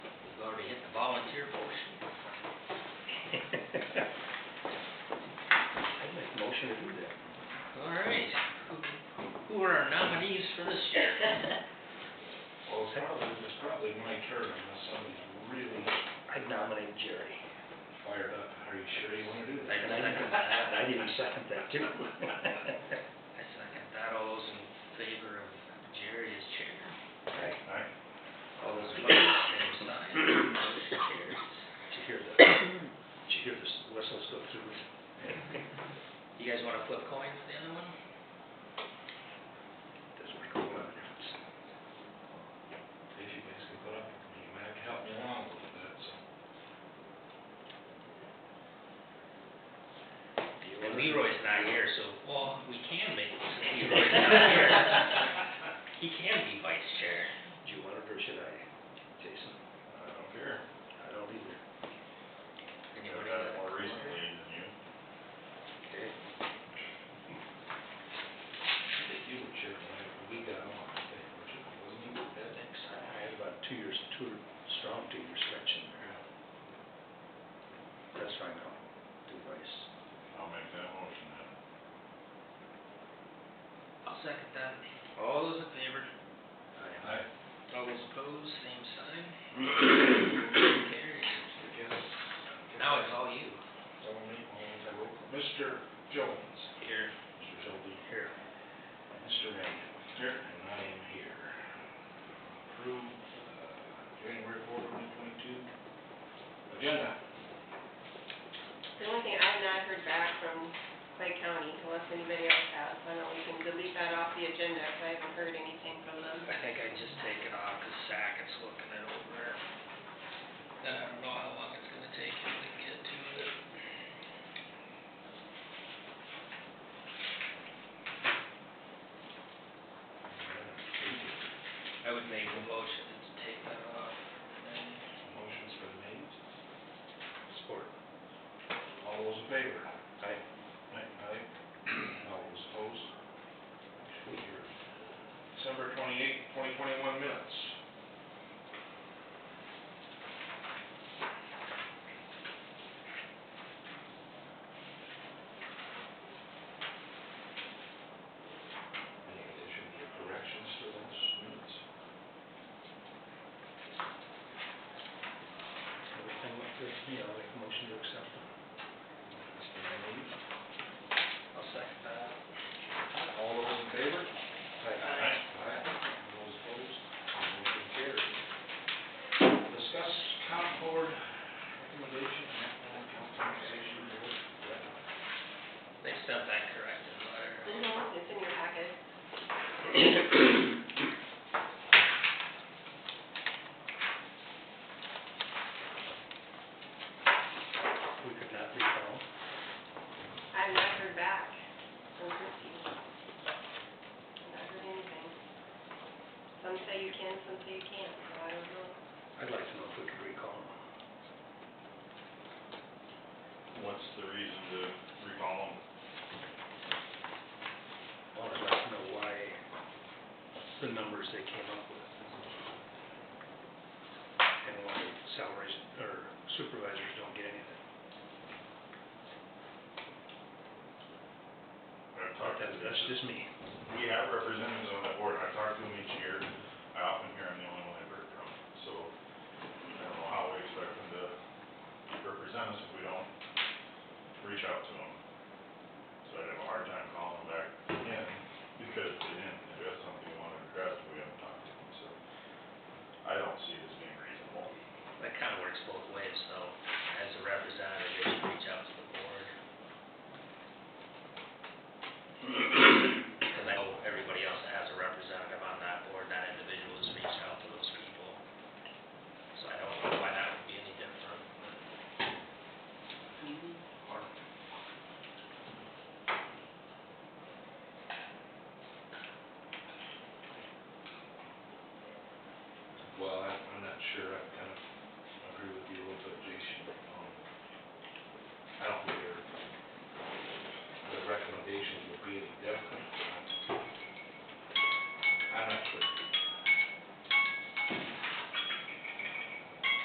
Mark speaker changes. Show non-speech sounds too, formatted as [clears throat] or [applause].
Speaker 1: we hit the volunteer motion.
Speaker 2: I make a motion to do that.
Speaker 1: All right, Who- who are our nominees for this year?
Speaker 3: Well, it's probably, it's probably my turn unless somebody's really
Speaker 2: I'd nominate Jerry.
Speaker 3: fired up. Are you sure you wanna do
Speaker 1: I
Speaker 3: that?
Speaker 2: And I'd even- and I'd even second that too.
Speaker 1: I
Speaker 2: [laughs]
Speaker 1: second that, all those in favor of Jerry as chair.
Speaker 2: Right.
Speaker 3: Alright,
Speaker 1: All those opposed, same sign, motion carries.
Speaker 2: Did you hear the, did you hear the whistles go through?
Speaker 1: You guys wanna flip coin for the other one?
Speaker 2: Doesn't make a whole lot of difference.
Speaker 3: if you guys can put up with me, you might have to help me along a little bit, so.
Speaker 1: And Leroy's not here, so, well, we can make this, if Leroy's not
Speaker 3: [laughs]
Speaker 1: here. He can be vice chair.
Speaker 2: Do you want it or should I, Jason?
Speaker 3: I don't care.
Speaker 2: I don't either.
Speaker 1: Anyone else?
Speaker 3: than you.
Speaker 2: Okay.
Speaker 3: You were chair when I- when we got on, I think, which wasn't you with that next
Speaker 2: I
Speaker 3: time?
Speaker 2: had about two years, two, strong two year stretch in there. That's fine, I'll do vice.
Speaker 3: I'll make that motion then.
Speaker 1: I'll second that. All those in favor?
Speaker 2: I-
Speaker 3: Aye.
Speaker 1: All those opposed, same sign. Motion carries.
Speaker 3: I guess.
Speaker 1: Now it's all you.
Speaker 3: Tell me, I will, Mr. Jones.
Speaker 1: Here.
Speaker 3: Mr. Shelby here. Mr. Randy. Here. And I am here. Approve, uh, January fourth, twenty twenty-two. Agenda.
Speaker 4: The only thing, I've not heard back from Clay County, unless anybody else has, I know we can delete that off the agenda, because I haven't heard anything from them.
Speaker 1: I think I just take it off, cause Sackett's looking it over. And I don't know how long it's gonna take him to get to it. I would make a motion to take that off. And
Speaker 3: Motion's for the meetings.
Speaker 2: Support.
Speaker 3: All those in favor? Aye. Aye. Aye. [clears throat] All those opposed? Motion carried. December twenty-eighth, twenty twenty-one minutes. Any additions or corrections to those minutes?
Speaker 2: Everything went good to me, I'll make a motion to accept them.
Speaker 3: Mr. Manning?
Speaker 1: I'll second that.
Speaker 3: All those in favor?
Speaker 1: Aye.
Speaker 3: Aye. Those opposed? Motion carried. Discuss comp board recommendation, and compensation board.
Speaker 1: They sent that corrected letter.
Speaker 4: No, it's in your packet.
Speaker 2: We could not recall.
Speaker 4: I've not heard back from Christie. I've not heard anything. Some say you can, some say you can't, so I don't know.
Speaker 2: I'd like to know if we could recall them.
Speaker 5: What's the reason to recall them?
Speaker 2: Well, I'd like to know why the numbers they came up with. And why salaries, or supervisors don't get anything.
Speaker 5: I've
Speaker 2: But
Speaker 5: talked to
Speaker 2: that- That's
Speaker 5: them,
Speaker 2: just me.
Speaker 5: we have representatives on that board, I talk to them each year, I often hear I'm the only one I've heard from, so I don't know how we expect them to represent us if we don't reach out to them. So I'd have a hard time calling them back in, because they didn't address something we wanted to address, but we haven't talked to them, so I don't see it as being reasonable.
Speaker 1: That kind of works both ways, so as a representative, they should reach out to the board. Because I know everybody else that has a representative on that board, that individual has reached out to those people. So I don't know why that would be any different. Or-
Speaker 3: Well, I, I'm not sure, I kind of agree with you a little bit, Jason, um, I don't